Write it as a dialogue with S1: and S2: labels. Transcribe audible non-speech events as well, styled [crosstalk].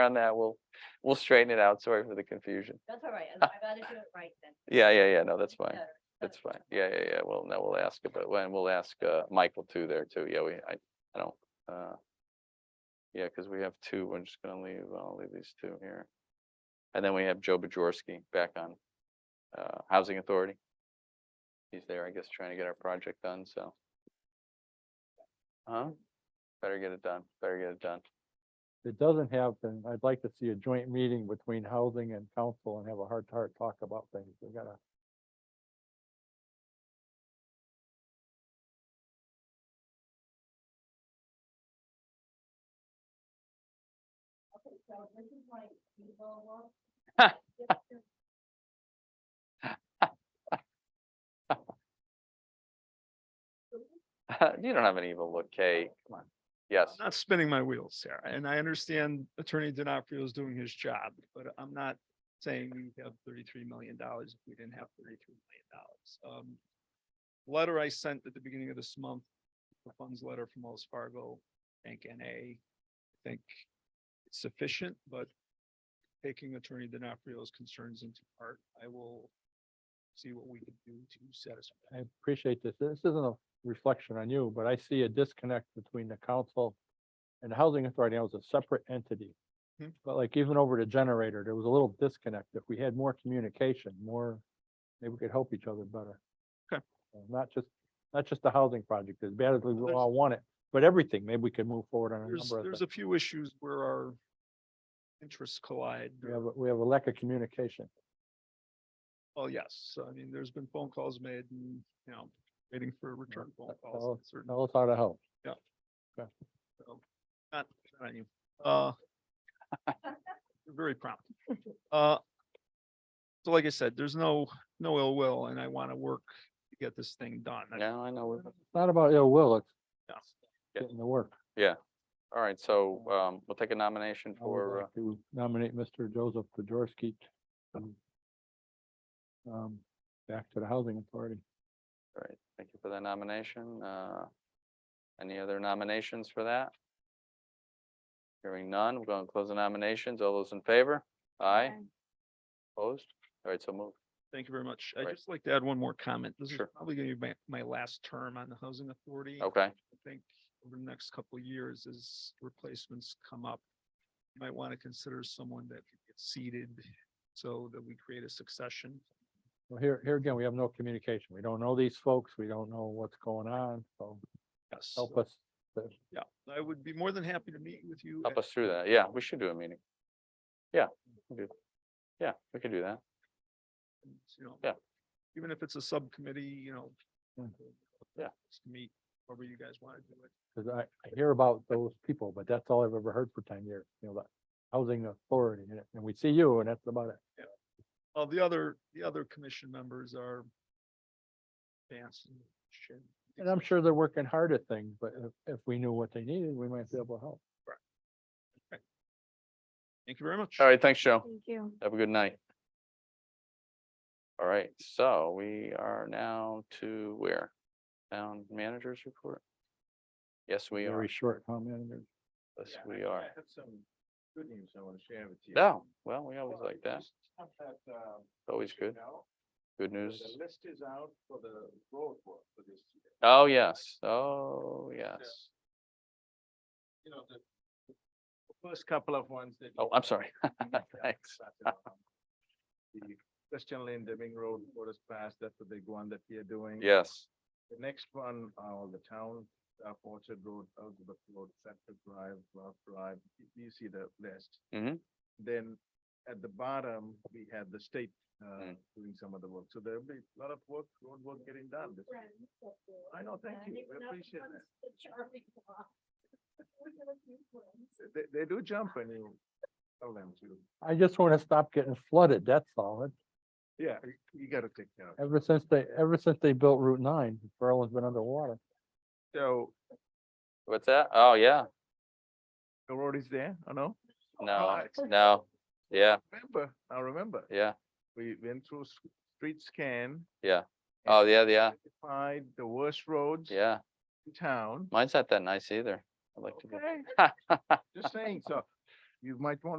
S1: on that, we'll, we'll straighten it out. Sorry for the confusion.
S2: That's all right. I'd I'd rather do it right then.
S1: Uh, Yeah, yeah, yeah, no, that's
S2: It's
S1: fine.
S2: better.
S1: That's fine.
S2: [laughs]
S1: Yeah, yeah, yeah. Well, no, we'll ask about, and we'll ask uh Michael too there too. Yeah, we, I, I don't, uh. Yeah, because we have two. We're just gonna leave, I'll leave these two here. And then we have Joe Bajorski back on uh Housing Authority. He's there, I guess, trying to get our project done, so. Huh? Better get it done. Better get it done. [laughs]
S3: it doesn't happen, I'd like to see a joint meeting between housing and council and have a heart to heart talk about things. We gotta.
S2: Okay, so this is like legal work.
S1: You don't have an evil look, Kay. Oh, Come on. Yes.
S4: I'm not spinning my wheels, Sarah, and I understand Attorney DiNapoli is doing his job, but I'm not saying we have thirty-three million dollars if we didn't have thirty-three million dollars. Um, letter I sent at the beginning of this month, the funds letter from Wells Fargo, Bank NA, I think it's sufficient, but taking Attorney DiNapoli's concerns into part, I will see what we can do to satisfy.
S3: I appreciate this. This isn't a reflection on you, but I see a disconnect between the council and the housing authority. Now was a separate entity.
S4: Hmm.
S3: But like even over the generator, there was a little disconnect. If we had more communication, more, maybe we could help each other better.
S4: Okay.
S3: Uh, Not just, not just the housing project, as bad as we
S4: There's-
S3: all want it, but everything, maybe we could move forward on a
S4: There's,
S3: number of
S4: there's
S3: things.
S4: a few issues where our interests collide.
S3: We
S4: or-
S3: have, a- we have a lack of communication.
S4: Well, Oh, yes, I mean, there's been phone calls made and, you know, waiting for return
S1: Uh,
S4: phone
S3: that-
S1: oh.
S4: calls. and certain-
S3: Tell us how to help.
S4: Not, not on you.
S1: [laughs]
S4: Uh. you're Very prompt. Uh. So like I said, there's no, no ill will and I want to work to get this thing done. I-
S1: No, I know. we're-
S3: It's not about ill will, it's
S4: Yeah.
S1: Yeah.
S3: getting the work.
S1: All right, so um we'll take a nomination
S3: I would
S1: for, uh,
S3: like To nominate Mr. Joseph Pajorski. Um, back to the housing authority.
S1: All right, thank you for that nomination. Uh, Any other nominations for that? Hearing none, we're going to close the nominations. All those in favor? Aye, opposed? All right, so move.
S4: Thank you very much. I'd
S1: Right.
S4: just like to add one more comment. This is
S1: Sure. Oh.
S4: probably gonna be my, my last term on the housing authority.
S1: Okay,
S4: I think over the next couple of years as replacements come up. You might want to consider someone that could get seated so that we create a succession.
S3: Well, here, here again, we have no communication. We don't know these folks. We don't know what's going on, so
S4: Yes.
S3: help
S4: so,
S3: us.
S4: Yeah, I would be more than happy to meet with you.
S1: help
S4: at-
S1: us through that. Yeah, we should do a meeting. Yeah, we could- yeah, we could do that.
S4: You know.
S1: yeah.
S4: Even if it's a subcommittee, you know.
S3: Mm.
S1: Yeah.
S4: just Meet, however you guys want to do it.
S3: Cause I, I hear about those people, but that's all I've ever heard for ten years, you know, the housing authority, and- and we see you, and that's about it.
S4: Uh, the other, the other commission members are. Vance and Shin.
S3: And I'm sure they're working hard at things, but if, if we knew what they needed, we might be able to help.
S4: Thank you very much.
S1: All right, thanks, Joe.
S2: Thank you.
S1: Have a good night. All right, so we are now to where? Town managers report? Yes, we are.
S3: Very short comment. there.
S1: Yes, we are.
S4: have some good news I want to share with you.
S1: No, well, we always like that. It's Always good,
S4: um, know,
S1: good news.
S4: list is out for the road work for this year.
S1: Oh, yes, oh, yes.
S4: You know, the the first couple of ones that.
S1: Oh,
S4: you-
S1: I'm sorry. [laughs] Thanks.
S4: The Christian Lane Deming Road, Forest Pass, that's the big one that we are doing.
S1: Yes,
S4: The next one, uh, the town, uh, Orchard Road, Elizabeth Road, Setford Drive, Love Drive, y- you see the list.
S1: Mhm.
S4: Then at the bottom, we have the state, uh,
S1: Mm.
S4: doing some of the work. So there'll be a lot of work, road work getting done. this year. Um, I know, thank you. I appreciate that.
S2: [laughs]
S4: They, they do jump when you tell them to.
S3: I just want to stop getting flooded, that's all. It-
S4: Yeah, you- you gotta take care of it.
S3: Ever since they, ever since they built Route nine, Berlin's been underwater.
S4: So
S1: what's that? Oh, yeah,
S4: the road is there, I know.
S1: no, no, yeah,
S4: Remember, I remember.
S1: yeah,
S4: We went through s- street scan.
S1: Yeah. Oh,
S4: and
S1: yeah, yeah,
S4: Identified the worst roads
S1: yeah.
S4: in town.
S1: Mine's not that nice either. I'd like to go. [laughs]
S4: Okay, just saying, so you might want to.